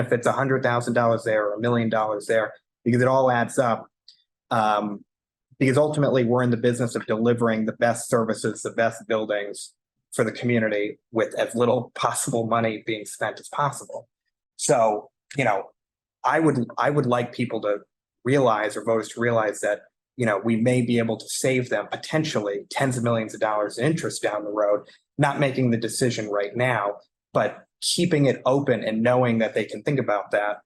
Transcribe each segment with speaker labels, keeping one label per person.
Speaker 1: if it's a hundred thousand dollars there or a million dollars there, because it all adds up. Um, because ultimately, we're in the business of delivering the best services, the best buildings for the community with as little possible money being spent as possible. So, you know, I would, I would like people to realize or voters to realize that, you know, we may be able to save them potentially tens of millions of dollars in interest down the road, not making the decision right now, but keeping it open and knowing that they can think about that.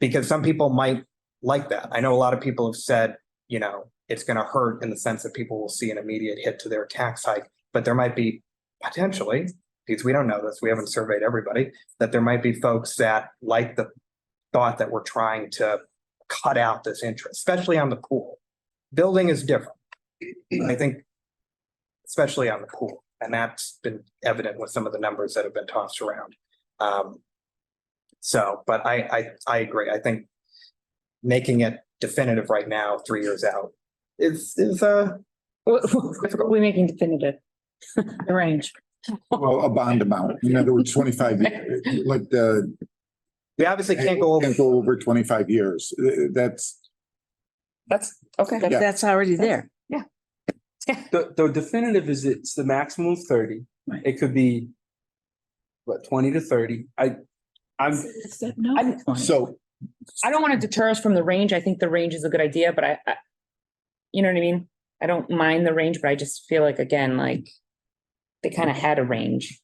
Speaker 1: Because some people might like that. I know a lot of people have said, you know, it's gonna hurt in the sense that people will see an immediate hit to their tax hike, but there might be potentially, because we don't know this, we haven't surveyed everybody, that there might be folks that like the thought that we're trying to cut out this interest, especially on the pool. Building is different. I think especially on the pool. And that's been evident with some of the numbers that have been tossed around. Um, so, but I, I, I agree. I think making it definitive right now, three years out, is, is, uh,
Speaker 2: What, what are we making definitive? The range.
Speaker 3: Well, a bond amount, in other words, twenty-five, years, like the.
Speaker 1: we obviously can't go over.
Speaker 3: over twenty-five years, Uh, that's,
Speaker 2: That's, okay.
Speaker 3: Yeah.
Speaker 4: That's already there.
Speaker 5: The, the definitive is it's the maximum of thirty.
Speaker 4: Right.
Speaker 5: It could be what, twenty to thirty? I, I'm,
Speaker 2: I'm-
Speaker 3: so,
Speaker 2: I don't want to deter us from the range. I think the range is a good idea, but I, I, you know what I mean? I don't mind the range, but I just feel like, again, like they kind of had a range.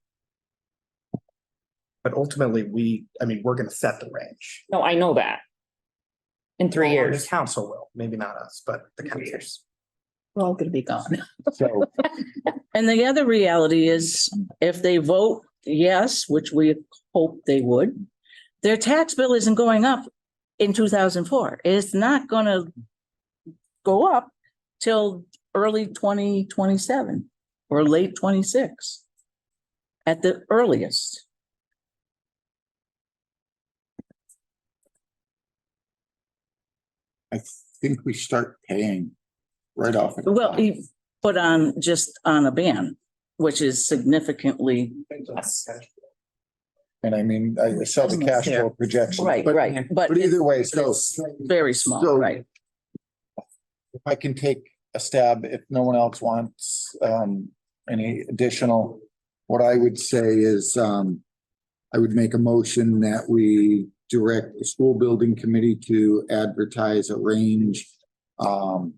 Speaker 1: But ultimately, we, I mean, we're gonna set the range.
Speaker 2: No, I know that. In three
Speaker 1: Or The
Speaker 2: years.
Speaker 1: council will, maybe not us, but the council.
Speaker 4: We're all gonna be gone.
Speaker 3: so,
Speaker 4: And the other reality is if they vote yes, which we hope they would, their tax bill isn't going up in two thousand four. It's not gonna go up till early twenty twenty-seven or late twenty-six at the earliest.
Speaker 3: I think we start paying right off. at the
Speaker 4: Well,
Speaker 3: bond.
Speaker 4: you put on just on a ban, which is significantly
Speaker 3: And I mean, I saw the cash flow projection.
Speaker 4: Right,
Speaker 3: but-
Speaker 4: right, but
Speaker 3: But either way, so.
Speaker 4: it's very small,
Speaker 3: So-
Speaker 4: right?
Speaker 3: If I can take a stab, if no one else wants um any additional, what I would say is um. I would make a motion that we direct the school building committee to advertise a range um.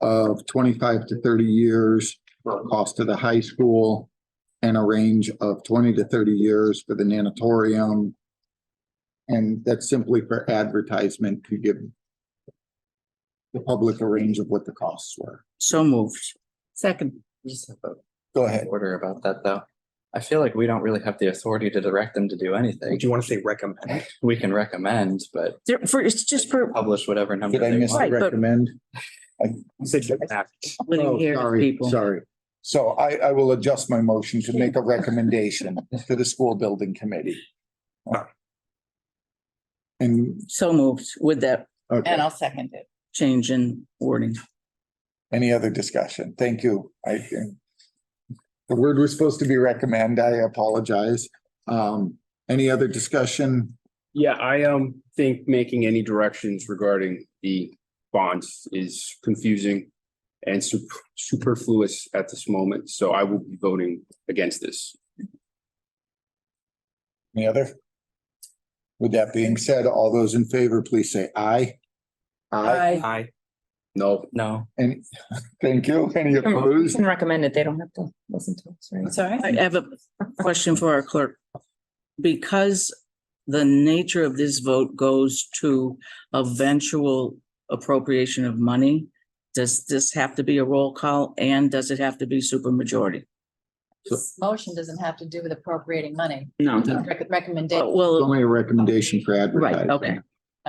Speaker 3: Of twenty-five to thirty years for a cost to the high school. And a range of twenty to thirty years for the nanatorium. And that's simply for advertisement to give the public a range of what the costs were.
Speaker 4: So moved. Second.
Speaker 6: Just have a
Speaker 3: Go ahead.
Speaker 6: order about that, though. I feel like we don't really have the authority to direct them to do anything.
Speaker 1: Do you wanna say recommend?
Speaker 6: We can recommend, but
Speaker 4: There- for- it's just for
Speaker 6: publish whatever number
Speaker 3: Did I
Speaker 6: they
Speaker 3: miss the
Speaker 6: want.
Speaker 4: Right, but-
Speaker 3: recommend?
Speaker 4: living
Speaker 3: Oh,
Speaker 4: here
Speaker 3: sorry,
Speaker 4: people.
Speaker 3: Sorry. So I, I will adjust my motion to make a recommendation to the school building committee. And, uh,
Speaker 4: So moved with that
Speaker 3: okay,
Speaker 7: I'll second it.
Speaker 4: change in wording.
Speaker 3: any other discussion? Thank you. I think the word was supposed to be recommend. I apologize. Um, any other discussion?
Speaker 8: Yeah, I um think making any directions regarding the bonds is confusing and sup- superfluous at this moment, so I will be voting against this.
Speaker 3: Any other? With that being said, all those in favor, please say aye.
Speaker 4: I
Speaker 1: I,
Speaker 8: No,
Speaker 6: No,
Speaker 3: And thank you. Any
Speaker 2: We
Speaker 3: opposed?
Speaker 2: can recommend it. They don't have to listen to us, right?
Speaker 7: Sorry.
Speaker 4: I have a question for our clerk. Because the nature of this vote goes to eventual appropriation of money, does this have to be a roll call and does it have to be supermajority?
Speaker 7: This motion doesn't have to do with appropriating money.
Speaker 8: no,
Speaker 7: Rec- Recommendation.
Speaker 3: It's
Speaker 4: Well,
Speaker 3: Only a recommendation for advertising.
Speaker 4: right,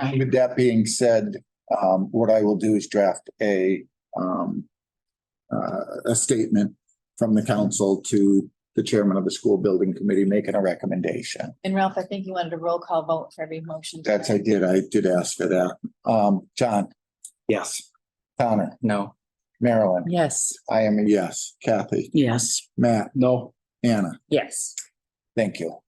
Speaker 4: okay.
Speaker 3: With that being said, um, what I will do is draft a, um, uh, a statement from the council to the chairman of the school building committee making a recommendation.
Speaker 7: And Ralph, I think you wanted a roll call vote for every motion.
Speaker 3: That's, I did, I did ask for that. Um, John,
Speaker 1: yes.
Speaker 3: Connor,
Speaker 6: no.
Speaker 3: Marilyn,
Speaker 4: Yes.
Speaker 3: I am a yes. Kathy,
Speaker 4: Yes.
Speaker 3: Matt,
Speaker 8: no.
Speaker 3: Anna,
Speaker 2: Yes.
Speaker 3: thank you.